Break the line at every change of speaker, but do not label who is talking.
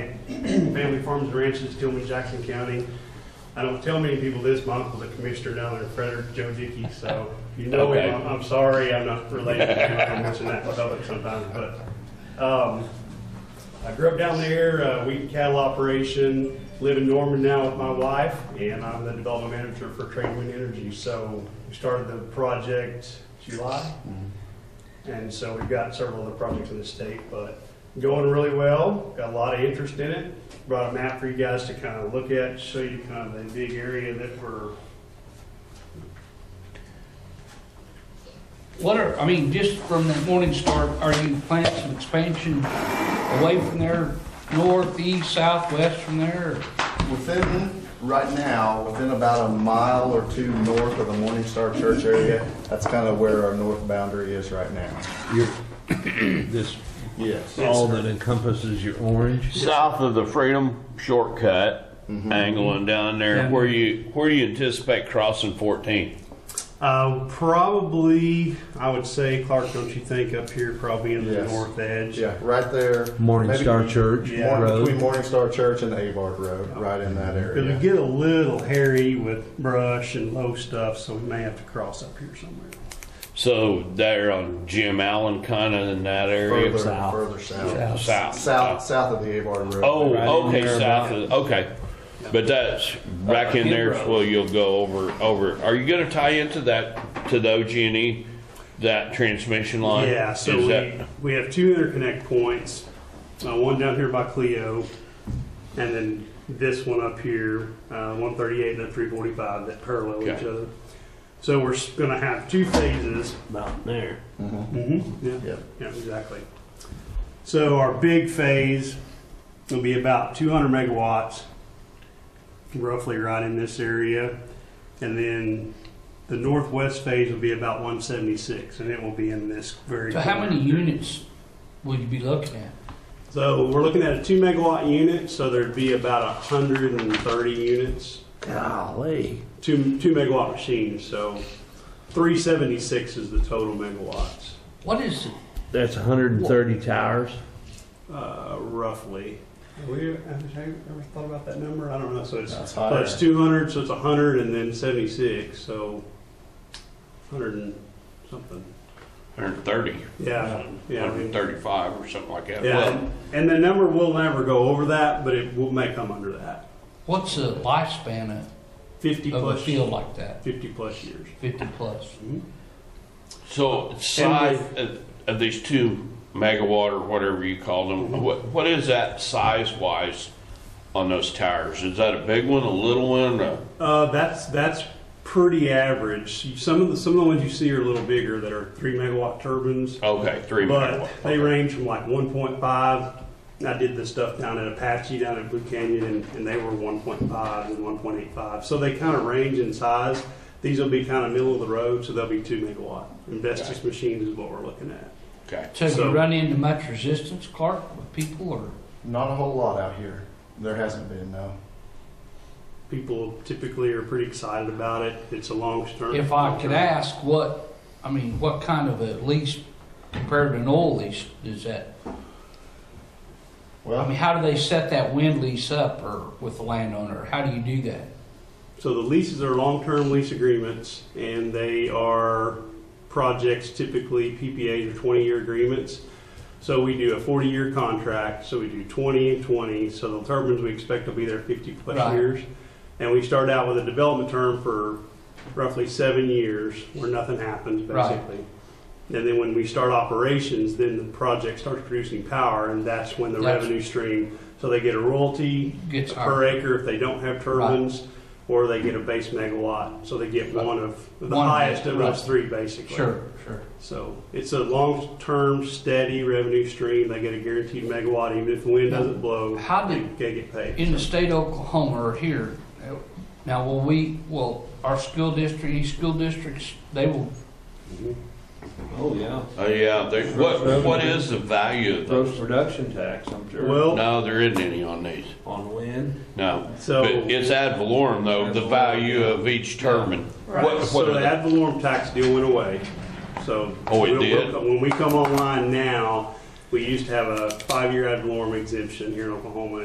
family farms and ranches, Tillman, Jackson County. I don't tell many people this, my uncle's a commissioner down there, Frederick Joe Dickey, so if you know
Okay.
him, I'm- I'm sorry, I'm not related to him, I mention that in public sometimes, but, um, I grew up down there, uh, wheat and cattle operation, live in Norman now with my wife, and I'm the development manager for Trade Wind Energy. So we started the project July, and so we've got several other projects in the state, but going really well, got a lot of interest in it. Brought a map for you guys to kind of look at, show you kind of the big area that we're,
What are, I mean, just from that morning start, are you planning some expansion away from there, north, east, south, west from there? or-
Within, right now, within about a mile or two north of the Morning Star Church area, that's kind of where our north boundary is right now.
Your, this,
Yes.
all that encompasses your orange?
South of the Freedom Shortcut, angling down there,
Yeah.
where you, where you anticipate crossing 14?
uh, probably, I would say, Clark, don't you think, up here, probably in the
Yes.
north edge?
Yeah, right there.
Morning
Maybe
Star Church
Yeah.
Morning- Between
Road?
Morning Star Church and Avard Road, right in that
Because we
area.
get a little hairy with brush and low stuff, so we may have to cross up here somewhere.
So there on Jim Allen, kind of in that area?
Further, further south.
South.
South, south of the Avard Road.
Oh,
Right in
okay,
there
south of, okay. But that's back in there, is where you'll go over, over. Are you gonna tie into that, to the OG&E, E, that transmission line?
Yeah, so
Is
we,
that-
we have two interconnect points, uh, one down here by Clio, and then this one up here, uh, 138 and then 345 that parallel each
Okay.
other. So we're going to have two phases.
About there.
Mm-hmm. Yeah.
Yep.
Yeah, exactly. So our big phase will be about 200 megawatts, roughly right in this area. And then the northwest phase will be about 176, and it will be in this very.
So how
corner.
many units would you be looking at?
So we're looking at a two megawatt unit, so there'd be about 130 units,
Golly.
two, two megawatt machines, so 376 is the total megawatts,
What is,
That's hundred and thirty towers?
uh, roughly. Have we ever, have you ever thought about that number? I don't know, so it's,
That's
but
higher.
it's 200, so it's 100 and then 76, so 100 and something.
130,
Yeah, yeah. I mean-
135 or something like that.
Yeah,
Well,
and- and the number will never go over that, but it will may come under that.
what's the lifespan of,
50
of a
plus,
field like that,
50 plus years.
fifty plus?
So size of- of these two megawatt or whatever you call
Mm-hmm.
them, what, what is that size wise on those towers? Is that a big one, a little one? a-
Uh, that's that's pretty average. Some of the some of the ones you see are a little bigger that are three megawatt turbines,
Okay, three megawatt.
but they
okay.
range from like 1.5. I did this stuff down at Apache down at Blue Canyon, and, and they were 1.5 and 1.85. So they kind of range in size. These will be kind of middle of the road, so they'll be two megawatt. Investors machines is what we're looking at.
Okay.
So have
So-
you run into much resistance, Clark, with people or?
Not a whole lot out here. There hasn't been, no.
People typically are pretty excited about it. It's a long term.
If I could ask, what, I mean, what kind of a lease compared to an oil lease is that? I
Well,
mean, how do they set that wind lease up or with the landowner? How do you do that?
So the leases are long-term lease agreements, and they are projects typically PPAs or 20-year agreements. So we do a 40-year contract, so we do 20 and 20, so the turbines we expect will be there 50-plus
Right.
years. And we start out with a development term for roughly seven years, where nothing happens,
Right.
basically. And then when we start operations, then the project starts producing power, and that's when the
That's-
revenue stream, so they get a royalty,
Gets
per acre if they don't have turbines, or they get a base megawatt. So they get
Right.
one of, the
One,
highest of
right.
those three, basically.
Sure, sure.
So it's a long-term, steady revenue stream. They get a guaranteed megawatt, even if the wind doesn't blow,
How
they
do-
they get paid.
In the
So
state of Oklahoma or here, now will we, will our school district, these school districts, they will,
Oh, yeah.
Oh, yeah, they, what, what is the value of
Gross
those?
production tax, I'm sure.
Well,
No, there isn't any on these,
On wind.
no.
so,
But it's ad valorem though, the value of each turbine. What,
so
what
the
are they?
ad valorem tax deal went away. So.
Oh,
we'll-
it
we'll
did?
come- When we come online now, we used to have a five-year ad valorem exemption here in Oklahoma,